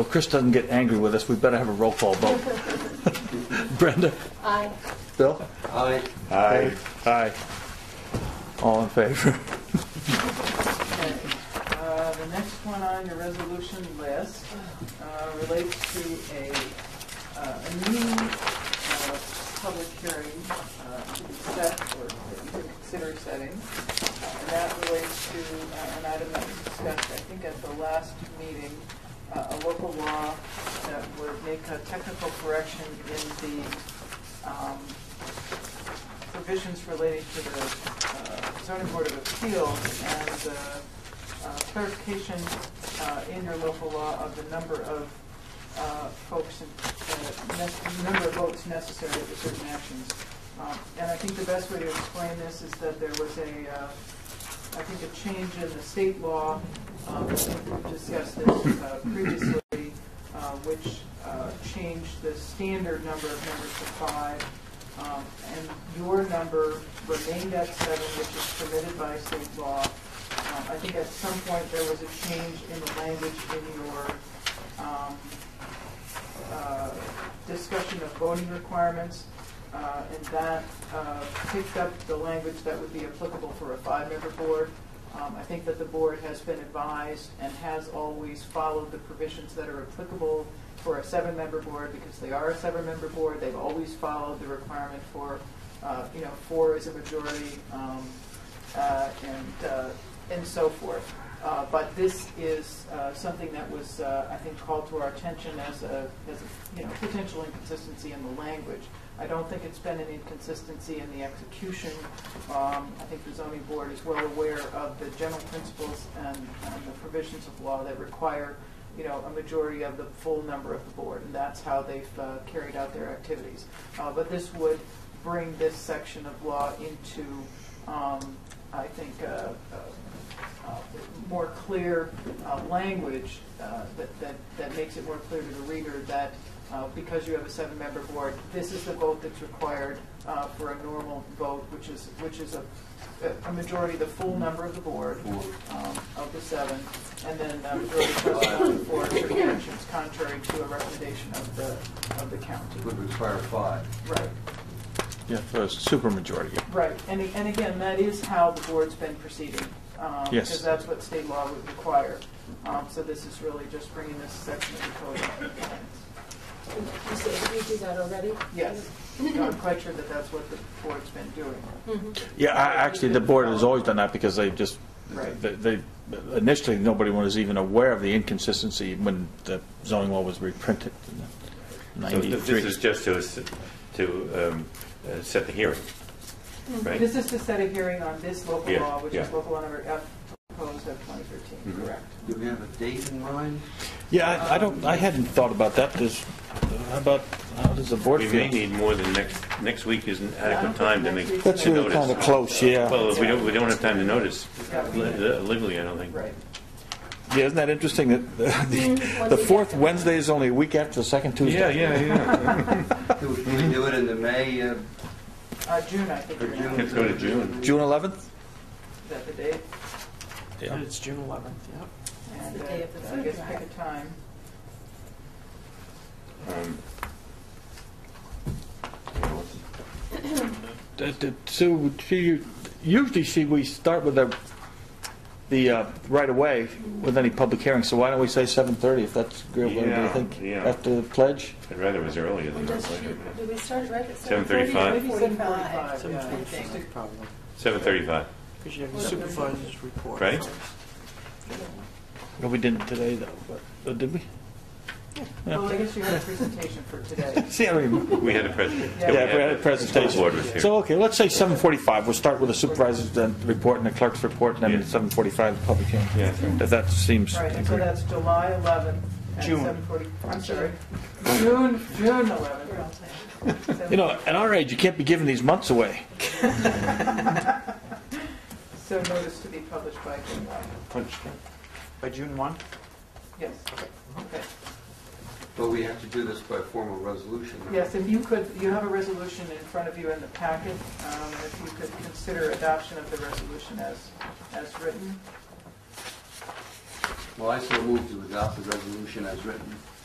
Well, Chris doesn't get angry with us, we better have a roll call vote. Brenda? Aye. Bill? Aye. Aye. Aye. All in favor? Okay, uh, the next one on your resolution list uh, relates to a, uh, a new uh, public hearing uh, to be set or that you could consider setting. Uh, And that relates to uh, an item that was discussed, I think, at the last meeting, uh, a local law that would make a technical correction in the um, provisions relating to the uh, zoning board of appeals and uh, uh, clarification uh, in your local law of the number of uh, folks, and, uh, nec- number of votes necessary for certain actions. Um, And I think the best way to explain this is that there was a, uh, I think, a change in the state law, um, we discussed this uh, previously, uh, which uh, changed the standard number of members to five, um, and your number remained at seven, which is permitted by state law. Um, I think at some point, there was a change in the language in your um, uh, discussion of voting requirements, uh, and that uh, picked up the language that would be applicable for a five-member board. Um, I think that the board has been advised and has always followed the provisions that are applicable for a seven-member board, because they are a seven-member board, they've always followed the requirement for, uh, you know, four is a majority, um, uh, and, uh, and so forth. Uh, But this is uh, something that was, uh, I think, called to our attention as a, as a, you know, potential inconsistency in the language. I don't think it's been an inconsistency in the execution. Um, I think the zoning board is well aware of the general principles and and the provisions of law that require, you know, a majority of the full number of the board, and that's how they've uh, carried out their activities. Uh, But this would bring this section of law into, um, I think, uh, uh, uh, more clear uh, language uh, that, that, that makes it more clear to the reader that uh, because you have a seven-member board, this is the vote that's required uh, for a normal vote, which is, which is a, a majority, the full number of the board, um, of the seven, and then um, a majority plus one for abstentions, contrary to a recommendation of the, of the county. Would require five. Right. Yeah, so it's supermajority. Right, and, and again, that is how the board's been proceeding. um, Yes. Because that's what state law would require. Um, So this is really just bringing this section of the code into compliance. You said you do that already? Yes, No, I'm quite sure that that's what the board's been doing. Yeah, I- actually, the board has always done that because they just, Right. they, they- initially, nobody was even aware of the inconsistency when the zoning law was reprinted in So th- This is '93. just to, s- to um, uh, set the hearing, right? Mm-hmm. This is to set a hearing on this local Yeah, law, which is yeah. local law number F proposed of 2013, correct? Do we have a date in mind? Yeah, I- I don't, I hadn't thought about that, does, how about, how does the board We may feel? need more than next, next week isn't I don't adequate think time to next make, week's That's to really notice. close, yeah. Well, if we don't, we don't have time to notice Yeah, we- le- legally, I don't think. Right. Yeah, isn't that interesting that Mm. the- the fourth Wednesday is only a week after the second Tuesday? Yeah, yeah, yeah. Do we can we do it in the May uh, Uh, June, I think, or you're June? gonna- Let's go to Mm-hmm. June. June 11th? is that the date? Yeah. It's June 11th, yep. And the uh, day of the I food guess drive. pick a time. Um, Uh, d- Sue, do you- usually she, we start with the, the, uh, right away with any public hearing, so why don't we say 7:30 if that's agreeable, do you Yeah, think? yeah. After the pledge? I'd rather it was earlier than Does not she, later. do we start right at seven thirty? 7:35? Maybe 7:45, yeah, I think. 7:45, probably, Seven thirty-five, because you have your supervisor's report. Right. No, we didn't today, though, but, oh, did we? Well, I guess you had a presentation for today. See, I don't even, we had a presentation. Yeah, yeah, we had a The board was presentation. here. So, okay, let's say 7:45, we'll start with the supervisor's then report and the clerk's report, and then Yeah. 7:45, the public hearing. Yeah, that's right. If that seems Right, and so agreeable. that's July 11th at June. 7:40, I'm sorry, June, June 11th. You know, at our age, you can't be giving these months away. So notice to be published by July, By June 1? yes. Okay. But we have to do this by formal resolution. Yes, if you could, you have a resolution in front of you in the packet, um, if you could consider adoption of the resolution as, as written. Well, I so move to adopt the resolution as written.